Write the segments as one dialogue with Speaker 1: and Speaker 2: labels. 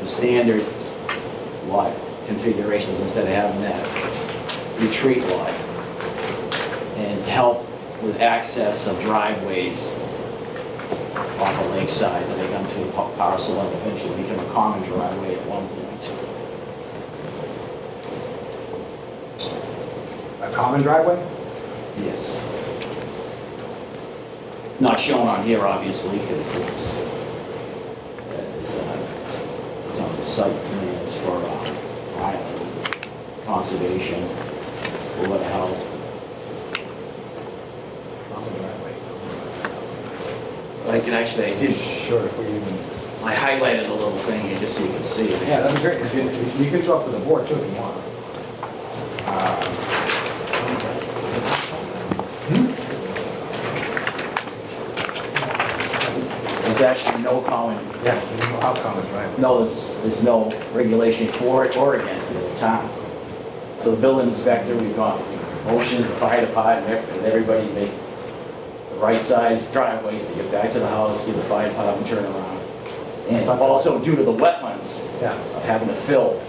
Speaker 1: to standard lot configurations instead of having that retreat lot. And to help with access of driveways off the lakeside that they come to a pa- parcel and eventually become a common driveway at one point.
Speaker 2: A common driveway?
Speaker 1: Yes. Not shown on here, obviously, because it's, it's, uh, it's on the site plans for uh, island conservation, or what the hell.
Speaker 2: Common driveway.
Speaker 1: I can actually, I did,
Speaker 2: Sure, if we even,
Speaker 1: I highlighted a little thing here just so you can see it.
Speaker 2: yeah, that'd be great. If you- if You could talk to the board too if you want. Uh, Hmm?
Speaker 1: There's actually no common,
Speaker 2: Yeah, you know how common driveway.
Speaker 1: no, there's, there's no regulation for it or against it at the time. So the building inspector, we've gone motion, the fire department, and everybody make the right size driveways to get back to the house, give the fire department turnaround. And also due to the wetlands,
Speaker 2: Yeah,
Speaker 1: of having to fill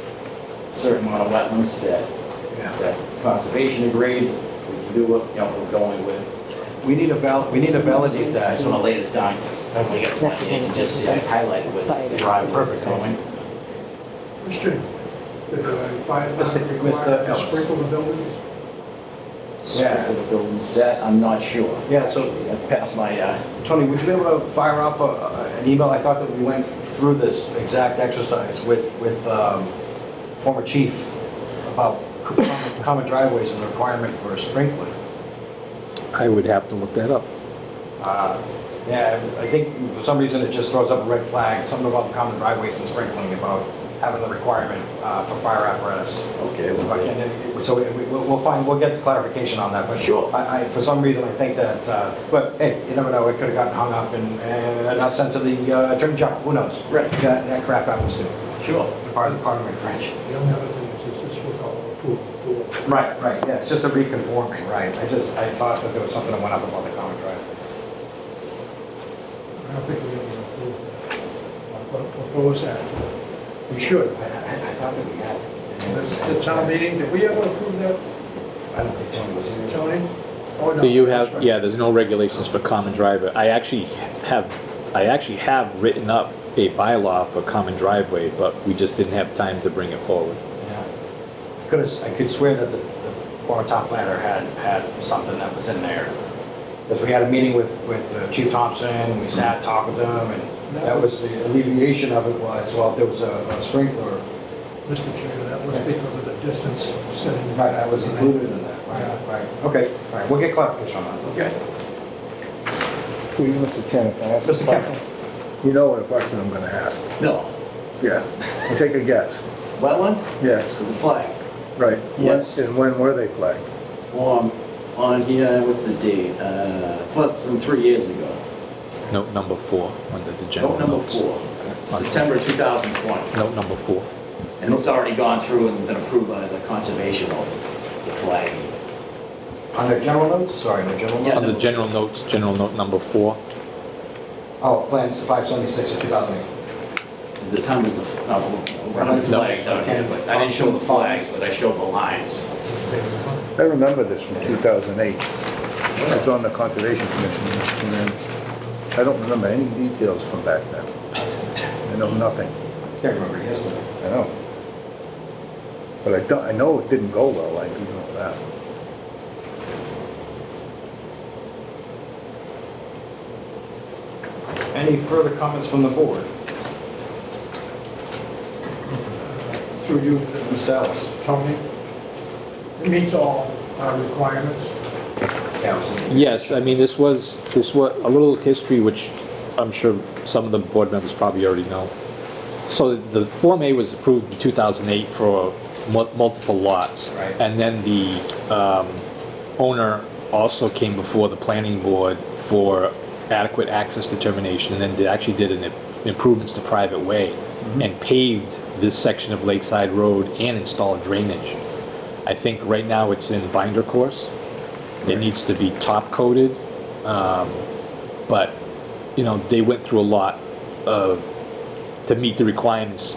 Speaker 1: a certain amount of wetlands that,
Speaker 2: yeah.
Speaker 1: that conservation agreed, we can do what, you know, we're going with.
Speaker 2: We need to val, we need to validate
Speaker 1: I
Speaker 2: that.
Speaker 1: just want to lay this down, we got a plan, here, and just see, I highlighted with the driveway going.
Speaker 3: Question, did the uh, fire
Speaker 2: Mr.
Speaker 3: department require
Speaker 2: Ellis.
Speaker 3: to sprinkle the buildings?
Speaker 1: Yeah, the buildings, that, I'm not sure.
Speaker 2: Yeah, so-
Speaker 1: Actually, That's past my, uh,
Speaker 2: Tony, would you be able to fire off a- a- an email? I thought that we went through this exact exercise with, with um, former chief about common- common driveways and the requirement for a sprinkler.
Speaker 4: I would have to look that up.
Speaker 2: Uh, Yeah, I think for some reason it just throws up a red flag, something about common driveways and sprinkling, about having the requirement uh, for fire apparatus.
Speaker 1: okay,
Speaker 2: But,
Speaker 1: well,
Speaker 2: and it- So we- we'll we'll find, we'll get the clarification on that, but.
Speaker 1: Sure.
Speaker 2: I, I- for some reason, I think that, uh, but hey, you never know, it could have gotten hung up and and not sent to the uh, attorney general, who knows?
Speaker 1: Right.
Speaker 2: That that crap happens too,
Speaker 1: sure.
Speaker 2: pardon pardon my French.
Speaker 3: The only other thing is this is what I'll approve for.
Speaker 2: Right, right, yeah, it's just a reconforming, right. I just, I thought that there was something that went up about the common driveway.
Speaker 3: I don't think we have to approve that. But propose that. We should.
Speaker 2: I- I I thought that we had. it.
Speaker 3: That's the town meeting, did we ever approve that,
Speaker 2: I don't think Tony was in there.
Speaker 3: Tony? Oh, no,
Speaker 4: Do you have,
Speaker 3: that's
Speaker 4: yeah, there's no regulations for common driveway. I actually have, I actually have written up a bylaw for common driveway, but we just didn't have time to bring it forward.
Speaker 2: Yeah. Could have, I could swear that the, the former top planner had, had something that was in there. Because we had a meeting with, with uh, Chief Thompson, and we sat, talked with him, and that was the alleviation of it was, well, if there was a a sprinkler.
Speaker 3: right. Mr. Chair, that was because of the distance setting.
Speaker 2: Right, that was included in that, right, right. Okay, all right, we'll get clarification on that.
Speaker 3: Okay.
Speaker 5: To you, Mr. Chairman, can I ask a
Speaker 2: Mr.
Speaker 5: question?
Speaker 2: Kemp?
Speaker 5: You know what question I'm gonna ask.
Speaker 1: No,
Speaker 5: Yeah. Take a guess.
Speaker 1: wetlands,
Speaker 5: Yes,
Speaker 1: the flag.
Speaker 5: right. When-
Speaker 1: Yes.
Speaker 5: And when were they flagged?
Speaker 1: Well, I'm on here, what's the date? Uh, It's less than three years ago.
Speaker 4: Note number four under the general
Speaker 1: Vote number
Speaker 4: notes.
Speaker 1: four, September 2020.
Speaker 4: Note number four.
Speaker 1: And it's already gone through and been approved by the conservation of the flag.
Speaker 2: On the general notes, sorry, on the general
Speaker 1: Yeah.
Speaker 2: notes?
Speaker 4: Under general notes, general note number four.
Speaker 2: Oh, plans five seventy-six of two thousand eight.
Speaker 1: The time is, a f- no, we're on the
Speaker 4: No.
Speaker 1: flags out here, but I didn't show the flags, but I showed the lines.
Speaker 5: I remember this from 2008. I was on the Conservation Commission, and then I don't remember any details from back then. I know nothing,
Speaker 2: Can't remember, yes, but-
Speaker 5: I know. But I don't, I know it didn't go well, I do know that.
Speaker 2: Any further comments from the board?
Speaker 3: Through you,
Speaker 2: Mr. Ellis?
Speaker 3: Tony. It meets all our requirements.
Speaker 2: Yeah, it was in-
Speaker 4: Yes, I mean, this was, this was a little history, which I'm sure some of the board members probably already know. So the Form A was approved in 2008 for mul- multiple lots.
Speaker 2: Right.
Speaker 4: And then the um, owner also came before the planning board for adequate access determination, and then they actually did an improvements to private way and paved this section of Lakeside Road and installed drainage. I think right now it's in binder course. It needs to be top coated. um, But, you know, they went through a lot of, to uh, meet the requirements